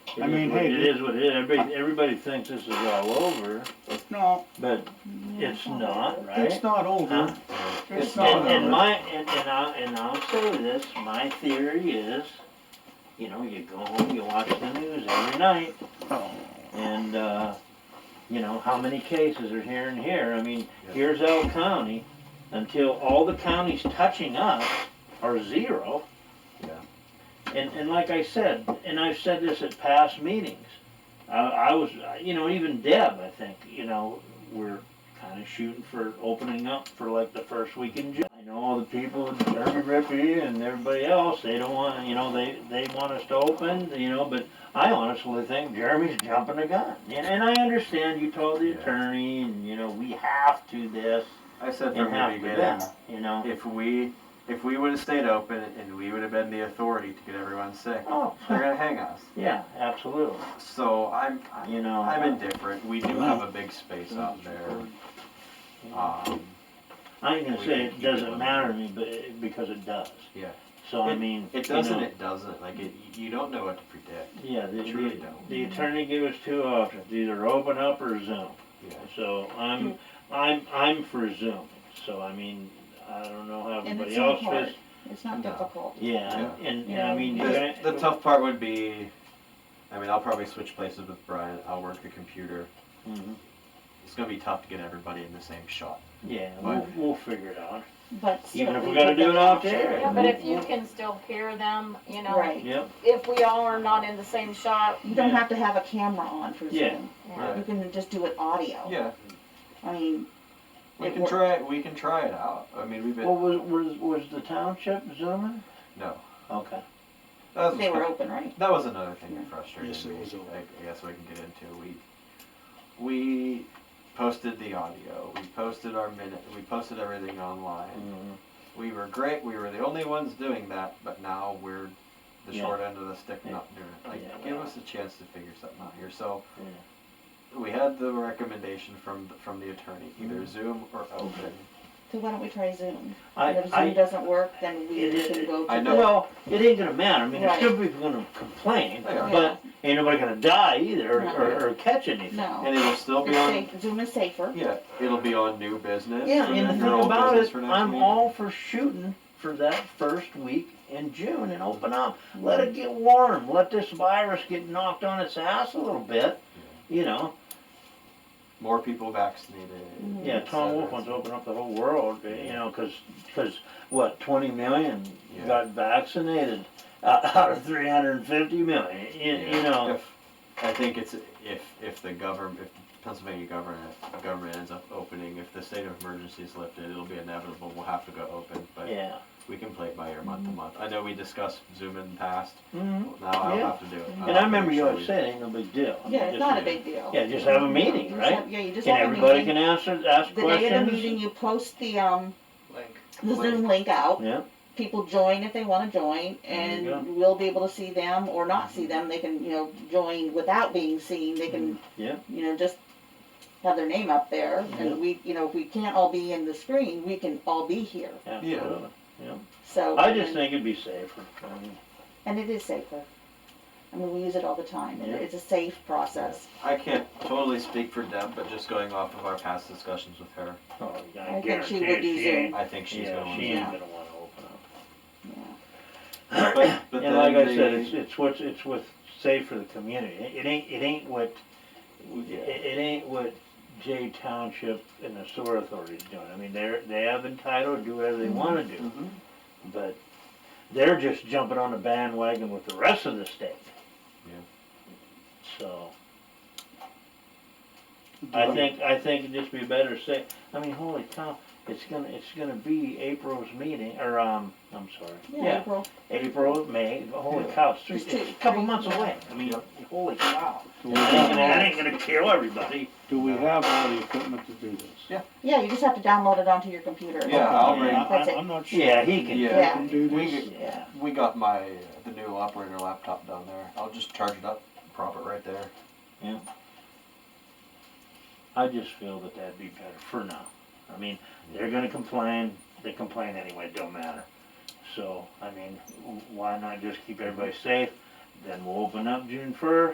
I mean, It hey, is what it is, everybody, everybody thinks this is all over, no, but it's not, right? it's not over. Huh? And, It's not and over. my, and, and I'll, and I'll say this, my theory is, you know, you go home, you watch the news every night, Oh. and, uh, you know, how many cases are here and here, I mean, here's L County, until all the counties touching us are zero. And, and like I said, and I've said this at past meetings, I, I was, you know, even Deb, I think, you know, we're kinda shooting for opening up for like the first week in June. I know all the people, Derby Rippey and everybody else, they don't wanna, you know, they, they want us to open, you know, but I honestly think Jeremy's jumping the gun. And, and I understand you told the Yeah. attorney and, you know, we have to this I said and from the have to beginning, that, you know? if we, if we would've stayed open and we would've been the authority to get everyone sick, Oh, they're gonna hang us. yeah, absolutely, So I'm, I- you know? I'm indifferent. We do have a big space out there. Um, I ain't gonna say We can it keep it doesn't on. matter to me, but, it- because it does. Yeah. So I mean. It you know, doesn't, it doesn't. Like, it, you don't know what to predict. Yeah, the, It really the- don't. the attorney gave us two options, either open up or Zoom. Yeah. So I'm, Hmm. I'm, I'm for Zoom, so I mean, I don't know how And everybody it's else not feels. hard, it's not No. difficult. Yeah, and, and Yeah. I mean, you The, guys- the tough part would be, I mean, I'll probably switch places with Brian. I'll work the computer. Mhm. It's gonna be tough to get everybody in the same shot. Yeah, we'll, we'll figure it out, But even still, if we we gotta have do it that off option. air. Yeah, but if you can still hear them, you know, Right, Yep, if we all are not in the same shot, you don't Yeah. have to have a camera on for Yeah. Zoom, Right. you can just do it audio, Yeah, I mean, we It can wor- try it. We can try it out. I mean, we've well, been was, was, was the township zooming? no. Okay, That was, they were open, right? that was another thing Yeah. that frustrated Yes, it me. was over. I guess we can get into we we posted the audio. We posted our minute. We posted everything online. Mhm. We were great. We were the only ones doing that, but now we're the Yeah. short end of the stick Yeah. not doing it. Like, Yeah, give well. us a chance to figure something out here. So, we had the recommendation from the, from the attorney, Mm. either Zoom or open. So why don't we try Zoom? I, And if I, Zoom doesn't work, then we It is- can go I to know. the, Well, it ain't gonna matter, I mean, there's Right. still people gonna complain, They are. but ain't nobody gonna die either, No. or, or catch anything. no, And it'll still be it's on. safe, Zoom is safer, Yeah, it'll be on new business. Yeah, for and the next- thing or old about business it, for next I'm meeting. all for shooting for that first week in June and open up. Let it get warm, let this virus get knocked on its ass a little bit, you know? More people vaccinated. Yeah, et Tom cetera. Wolf wants to open up the whole world, you know, 'cause 'cause what, twenty million Yeah. got vaccinated out out of three hundred and fifty million, you, you Yeah. know? If- I think it's if if the government, if the Pennsylvania government government ends up opening, if the state of emergency is lifted, it'll be inevitable. We'll have to go open, but Yeah. we can play it by ear month to month. I know we discussed Zoom in the past. Mhm. Now I'll Yeah. have to do it. I'll And have I to remember make you sure always we- said, ain't no big deal. I mean, yeah, it's just- not a big deal. Yeah, just have a You meeting, just right? have- Yeah, you just And have a meeting. everybody can answer, ask The day of the meeting, questions. you post the, um, Link. the Zoom link out, Yeah. people join if they wanna join, There you and we'll be able to see them or not see them, they can, you know, join without being seen, they can, Mm-hmm. Yeah. you know, just have their name up there, Yeah. and we, you know, if we can't all be in the screen, we can all be here, Absolutely. so. I just and- think it'd be safer. I mean, And it is safer, I mean, we use it all the time, and Yeah. it's a safe process, I can't totally speak for Deb, but just going off of our past discussions with her, oh, I I think she guarantee would it, do she ain't, I think she's yeah, going she to. ain't Yeah. gonna wanna open up. But, but And then like I said, they- it's, it's what's, it's what's safe for the community. It it ain't, it ain't what, Yeah. it, it ain't what Jay Township and the sewer authority's doing. I mean, they're, they have entitled to do whatever they wanna do, Mhm. but they're just jumping on the bandwagon with the rest of the state. Yeah. So. I think, I think it'd just be better to say, I mean, holy cow, it's gonna, it's gonna be April's meeting, or, um, I'm sorry. yeah, April, April, May, holy Yeah. cow, it's, three- It's two, it's a couple three, months yeah. away, I mean, Yep. holy cow. Do we That ain't gonna, have- that ain't gonna kill everybody. do we have all the equipment to do this? yeah, you just have to download it onto your computer. Yeah, I'll Yeah, bring- I- That's it. I'm not sure. Yeah, he can. Yeah. Yeah. Can do this? We- Yeah. We got my the new operator laptop down there. I'll just charge it up, prop it right there. I just feel that that'd be better for now. I mean, they're gonna complain, they complain anyway, it don't matter. So, I mean, w- why not just keep everybody safe, then we'll open up June first,